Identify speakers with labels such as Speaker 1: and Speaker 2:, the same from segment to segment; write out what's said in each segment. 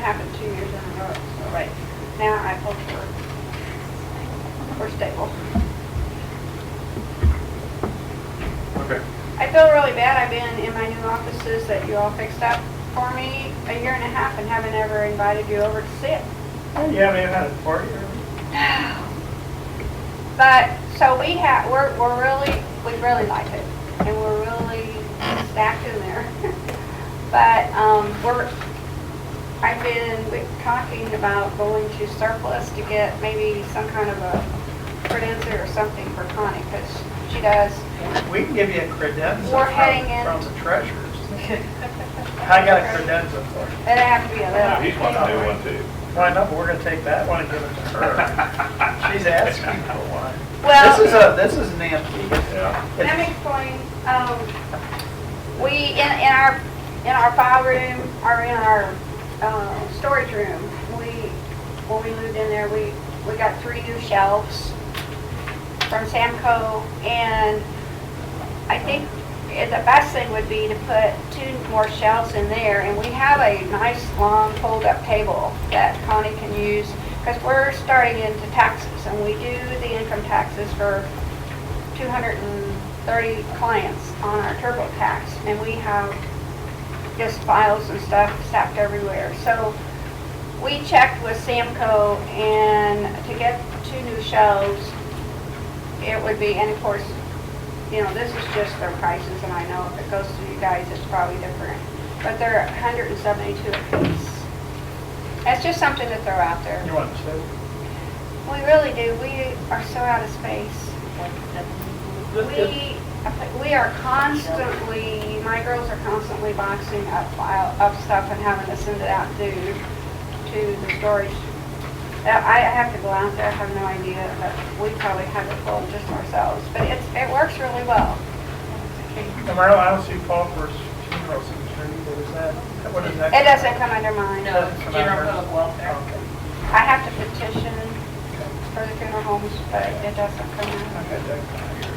Speaker 1: happened two years in a row, so right now I hope we're, we're stable.
Speaker 2: Okay.
Speaker 1: I feel really bad, I've been in my new offices that you all fixed up for me a year and a half and haven't ever invited you over to see it.
Speaker 2: Hey, You haven't even had a party or?
Speaker 1: But, so we have, we're, we're really, we really like it, and we're really stacked in there. But, um, we're, I've been talking about going to surplus to get maybe some kind of a credenza or something for Connie, because she does,
Speaker 2: We can give you a credenza
Speaker 1: We're
Speaker 2: from,
Speaker 1: hanging.
Speaker 2: from the treasurers. I got a credenza for you.
Speaker 1: it'd have to be a
Speaker 3: Yeah,
Speaker 1: little.
Speaker 3: He's wanting to do one too.
Speaker 2: Why not? We're gonna take that one and give it to her. She's asking for one.
Speaker 1: Well-
Speaker 2: This is a, this is an antique.
Speaker 3: Yeah.
Speaker 1: Let me explain, um, we, in, in our, in our file room, or in our, uh, storage room, we, when we moved in there, we, we got three new shelves from Samco, and I think it- the best thing would be to put two more shelves in there, and we have a nice, long fold-up table that Connie can use, because we're starting into taxes, and we do the income taxes for 230 clients on our TurboTax, and we have just files and stuff stacked everywhere. So we checked with Samco, and to get two new shelves, it would be, and of course, you know, this is just their prices, and I know if it goes to you guys, it's probably different, but they're 172 apiece. That's just something to throw out there.
Speaker 2: You want to say?
Speaker 1: We really do, we are so out of space. We, we are constantly, my girls are constantly boxing up file, up stuff and having to send it out to, to the storage. Uh, I I have to go out there, I have no idea, but we probably have it full just ourselves, but it's, it works really well.
Speaker 2: Tomorrow, I don't see Paul for his funeral signature either. Is that, what is that?
Speaker 1: It doesn't come under mine.
Speaker 4: No, it's general public welfare.
Speaker 2: Okay.
Speaker 1: I have to petition for the funeral homes, but it doesn't come
Speaker 2: I
Speaker 1: under.
Speaker 2: got that kind of yours.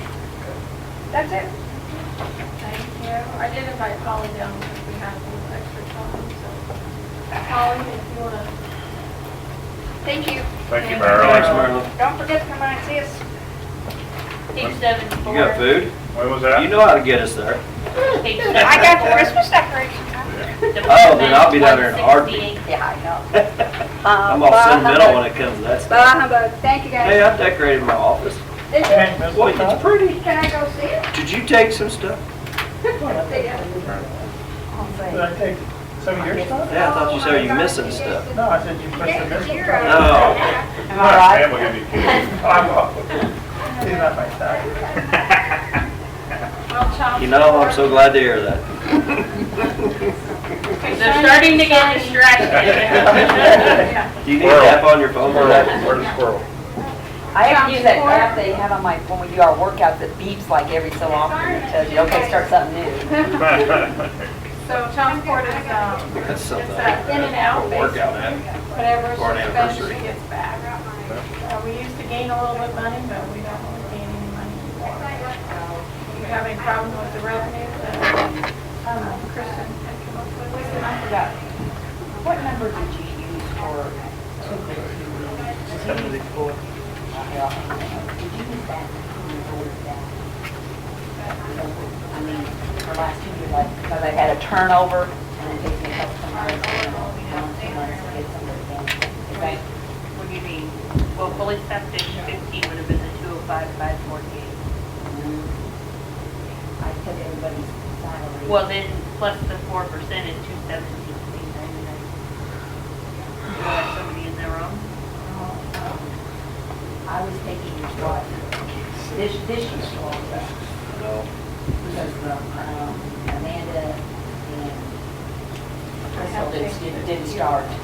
Speaker 1: That's it.
Speaker 4: Thank you. I did invite Polly down because we had a little extra time, so. Polly, if you wanna.
Speaker 1: Thank you.
Speaker 3: Thank you,
Speaker 5: Thanks,
Speaker 3: Marilyn.
Speaker 5: Marilyn.
Speaker 1: Don't forget to come by and see us.
Speaker 4: Page seven four.
Speaker 5: You got food?
Speaker 3: When was
Speaker 5: You
Speaker 3: that?
Speaker 5: know how to get us there.
Speaker 4: Page seven
Speaker 1: I got the
Speaker 4: four.
Speaker 1: Christmas decorations.
Speaker 5: Oh, then I'll be down there in a heartbeat.
Speaker 1: Yeah, I know.
Speaker 5: I'm all sentimental when it comes to that stuff.
Speaker 1: Bah humbug, thank you
Speaker 5: Hey,
Speaker 1: guys.
Speaker 5: I decorated my office.
Speaker 1: This
Speaker 2: Okay.
Speaker 1: is-
Speaker 2: Hey, Miss
Speaker 5: Boy, it's
Speaker 2: Lopez.
Speaker 5: pretty.
Speaker 1: Can I go see it?
Speaker 5: Did you take some stuff?
Speaker 1: See ya.
Speaker 2: Did I take some of your stuff?
Speaker 5: Yeah, I thought you
Speaker 1: Oh,
Speaker 5: said
Speaker 1: my
Speaker 5: you're
Speaker 1: God,
Speaker 5: missing
Speaker 1: you
Speaker 5: stuff. Oh.
Speaker 1: gave
Speaker 2: No, I said you
Speaker 1: the-
Speaker 2: put
Speaker 1: you gave
Speaker 2: some
Speaker 1: the
Speaker 2: missing.
Speaker 1: zero.
Speaker 5: No.
Speaker 1: Am
Speaker 3: My
Speaker 1: I right?
Speaker 3: family gonna be kidding.
Speaker 2: I'm off. He's not my type.
Speaker 4: Well, child
Speaker 5: You know, I'm
Speaker 4: support.
Speaker 5: so glad to hear that.
Speaker 4: They're starting to get distracted.
Speaker 5: Do you need an app on your phone for that?
Speaker 3: Where's the squirrel?
Speaker 6: I have to
Speaker 4: Sounds
Speaker 6: use that
Speaker 4: important.
Speaker 6: app they have on my, when we do our workouts, it beeps like every so often, it tells you, okay, start something new.
Speaker 4: So child support is, um,
Speaker 5: That's something.
Speaker 4: it's that in and out basis,
Speaker 5: Workout app.
Speaker 4: whatever
Speaker 5: For an
Speaker 4: she spends,
Speaker 5: anniversary.
Speaker 4: she gets back. Uh, we used to gain a little bit money, but we don't really gain any money anymore. Do you have any problem with the revenue that, um, Kristen had come up with?
Speaker 6: I forgot, what number did you use for? Did you use that to order that? I mean, for last two years, like, because I had a turnover, and it takes me a couple of months, you know, you know, two months to get somebody in. Is that-
Speaker 7: What do you mean? Well, fully septic, 15 would have been the 205, 548.
Speaker 6: Mm-hmm. I took everybody's salary.
Speaker 7: Well, then plus the 4% is 217, 399. You have somebody in their own?
Speaker 6: I was taking what, this, this year's law,
Speaker 5: No.
Speaker 6: because um, Amanda and Crystal didn't, didn't start.
Speaker 5: You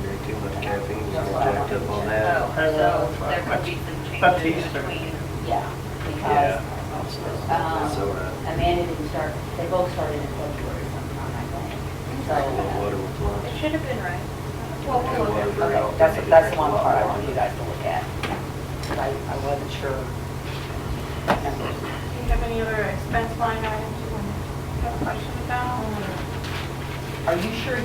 Speaker 5: drink too much caffeine, you get jacked up on that.
Speaker 7: Oh,
Speaker 2: Hello.
Speaker 7: so there could be some
Speaker 2: That's
Speaker 7: changes
Speaker 2: Easter.
Speaker 7: between.
Speaker 6: Yeah, because
Speaker 5: Yeah. uh, That's all
Speaker 6: um,
Speaker 5: right.
Speaker 6: Amanda didn't start, they both started in February sometime, I think. So,
Speaker 5: A little water with lunch.
Speaker 4: should have been right.
Speaker 6: well,
Speaker 5: we'll look at it.
Speaker 6: okay, that's, that's the one part I want you guys to look at. 'cause I, I wasn't sure. Numbers.
Speaker 4: Do you have any other expense line items you want to have a question about?
Speaker 6: Are you sure